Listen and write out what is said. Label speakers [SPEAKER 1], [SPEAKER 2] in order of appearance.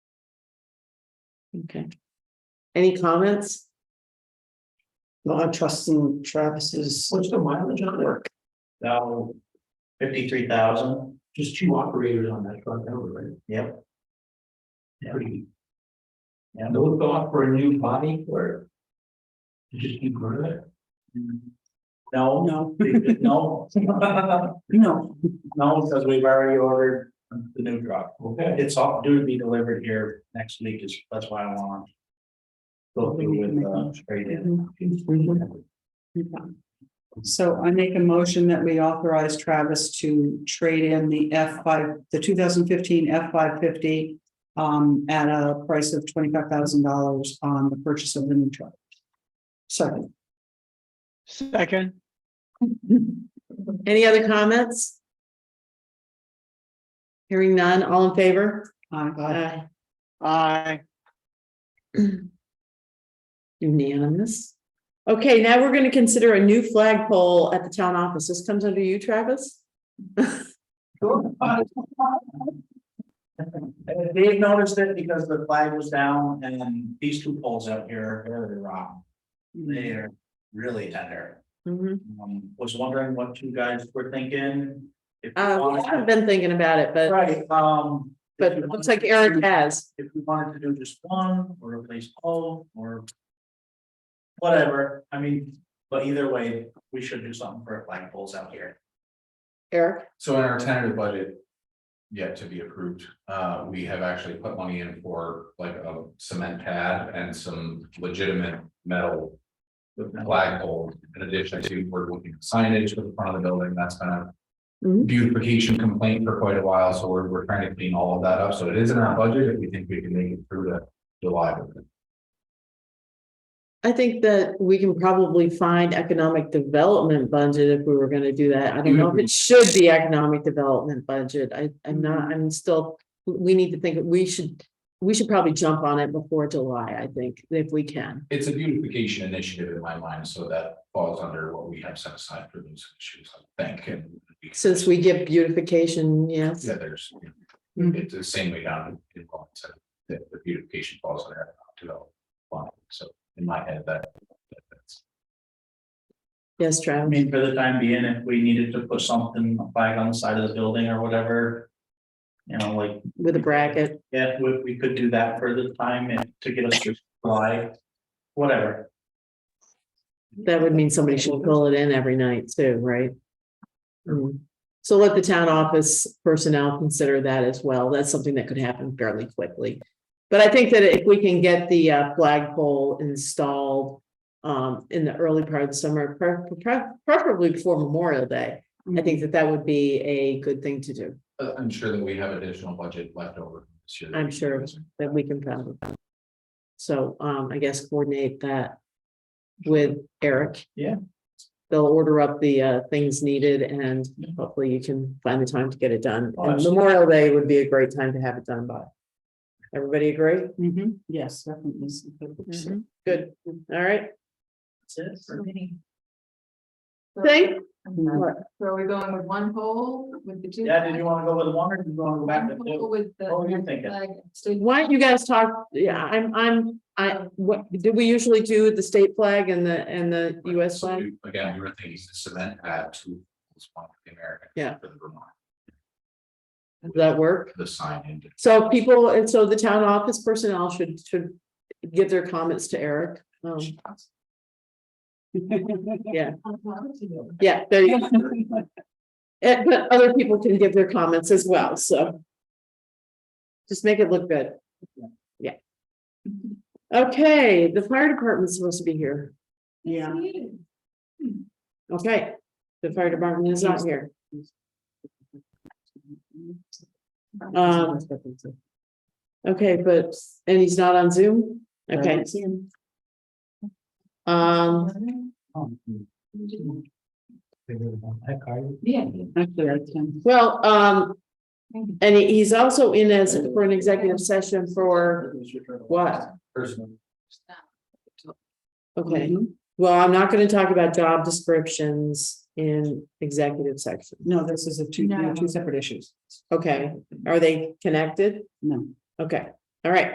[SPEAKER 1] Okay. Any comments?
[SPEAKER 2] No, I'm trusting Travis's
[SPEAKER 3] What's the mileage on it?
[SPEAKER 2] work.
[SPEAKER 3] Now, fifty-three thousand,
[SPEAKER 4] Just two operators on that truck, that was right.
[SPEAKER 3] yep. Yeah.
[SPEAKER 4] Pretty. And those thought for a new body or? you Just keep running it.
[SPEAKER 3] No,
[SPEAKER 2] No,
[SPEAKER 3] no.
[SPEAKER 2] no,
[SPEAKER 3] No, because we've already ordered the new truck.
[SPEAKER 4] Okay.
[SPEAKER 3] It's all due to be delivered here next week is, that's why I want. to Go through with, uh, straight in.
[SPEAKER 2] so I make a motion that we authorize Travis to trade in the F five, the two thousand fifteen F five fifty. Um, at a price of twenty-five thousand dollars on the purchase of the new truck. Second.
[SPEAKER 5] Second,
[SPEAKER 1] Any other comments? Hearing none, all in favor?
[SPEAKER 2] Aye.
[SPEAKER 1] Aye.
[SPEAKER 5] aye.
[SPEAKER 1] Unanimous. Okay, now we're gonna consider a new flagpole at the town office. This comes under you, Travis?
[SPEAKER 3] And Dave noticed it because the flag was down and these two poles out here, they're rotten. They're really tender.
[SPEAKER 1] Mhm.
[SPEAKER 3] Um, was wondering what you guys were thinking. if you
[SPEAKER 1] Uh,
[SPEAKER 3] wanted-
[SPEAKER 1] I've been thinking about it, but,
[SPEAKER 3] Right, um. if
[SPEAKER 1] but
[SPEAKER 3] you
[SPEAKER 1] it looks
[SPEAKER 3] wanted
[SPEAKER 1] like
[SPEAKER 3] to
[SPEAKER 1] Eric
[SPEAKER 3] do-
[SPEAKER 1] has.
[SPEAKER 3] If we wanted to do just one or replace all or. Whatever, I mean, but either way, we should do something for flag poles out here.
[SPEAKER 1] Eric,
[SPEAKER 6] So in our tentative budget. Yet to be approved, uh, we have actually put money in for like a cement pad and some legitimate metal. Flagpole, in addition to, we're looking at signage for the front of the building, that's been a.
[SPEAKER 1] Mhm.
[SPEAKER 6] Beautification complaint for quite a while, so we're, we're trying to clean all of that up, so it is in our budget, if we think we can make it through to July.
[SPEAKER 1] I think that we can probably find economic development budget if we were gonna do that. I don't know if
[SPEAKER 3] Mm-hmm.
[SPEAKER 1] it should be economic development budget. I, I'm not, I'm still, we need to think, we should, we should probably jump on it before July, I think, if we can.
[SPEAKER 6] It's a beautification initiative in my mind, so that falls under what we have set aside for those issues, I think, and. we can-
[SPEAKER 1] Since we get beautification, yes.
[SPEAKER 6] Yeah, there's,
[SPEAKER 1] Mm-hmm.
[SPEAKER 2] Mm.
[SPEAKER 6] it's the same way down in Wellington, the, the beautification falls under economic development. line. So in my head, that, that- that's,
[SPEAKER 1] Yes,
[SPEAKER 3] I
[SPEAKER 1] Travis.
[SPEAKER 3] mean, for the time being, if we needed to put something, a flag on the side of the building or whatever. You know, like
[SPEAKER 1] with a bracket.
[SPEAKER 3] Yeah, we, we could do that for the time and to get us to July, whatever.
[SPEAKER 1] That would mean somebody should pull it in every night too, right? Mm. So let the town office personnel consider that as well. That's something that could happen fairly quickly. But I think that if we can get the uh, flagpole installed um, in the early part of the summer, pre- pre- preferably before Memorial Day, I think that that would be a good thing to do.
[SPEAKER 6] uh, I'm sure that we have additional budget left over this year. that
[SPEAKER 1] I'm
[SPEAKER 6] we can
[SPEAKER 1] sure.
[SPEAKER 6] use.
[SPEAKER 1] that we can find. So um, I guess coordinate that with Eric.
[SPEAKER 3] Yeah.
[SPEAKER 1] They'll order up the uh things needed and
[SPEAKER 3] Yeah.
[SPEAKER 1] hopefully you can find the time to get it done.
[SPEAKER 3] Oh,
[SPEAKER 1] And
[SPEAKER 3] absolutely.
[SPEAKER 1] Memorial Day would be a great time to have it done by. Everybody agree?
[SPEAKER 3] Mm-hmm.
[SPEAKER 2] Mhm. Yes, definitely.
[SPEAKER 1] Mhm. Good, all right,
[SPEAKER 3] That's it.
[SPEAKER 7] So many.
[SPEAKER 1] Thank-
[SPEAKER 7] So are we going with one pole with the two?
[SPEAKER 3] Yeah, did you wanna go with one or do you wanna go back to
[SPEAKER 7] One
[SPEAKER 3] two?
[SPEAKER 7] pole With the.
[SPEAKER 3] What were you thinking?
[SPEAKER 7] flag, so
[SPEAKER 1] why don't you guys talk, yeah, I'm, I'm, I, what, do we usually do the state flag and the, and the US
[SPEAKER 6] So
[SPEAKER 1] flag?
[SPEAKER 6] we- Again, we were thinking cement add to one for the American.
[SPEAKER 1] Yeah.
[SPEAKER 6] For the Vermont,
[SPEAKER 1] Does that work?
[SPEAKER 6] the sign and
[SPEAKER 1] So people, and so the town office personnel should, should give their comments to Eric. Um,
[SPEAKER 7] I'll talk to you.
[SPEAKER 1] yeah, there you go. And- but other people can give their comments as well, so. Just make it look good. Yeah. Okay, the fire department's supposed to be here.
[SPEAKER 2] Yeah.
[SPEAKER 1] Okay, the fire department is not here. Um, Okay, but, and he's not on Zoom? Okay, um,
[SPEAKER 7] Yeah.
[SPEAKER 2] Um, Actually, I can.
[SPEAKER 1] well, um, and he- he's also in as for an executive session for what?
[SPEAKER 3] Personal.
[SPEAKER 1] Okay, well, I'm not gonna talk about job descriptions in executive section.
[SPEAKER 2] No, this is a two,
[SPEAKER 7] No.
[SPEAKER 2] two separate issues.
[SPEAKER 1] Okay, are they connected?
[SPEAKER 2] No.
[SPEAKER 1] Okay, all right.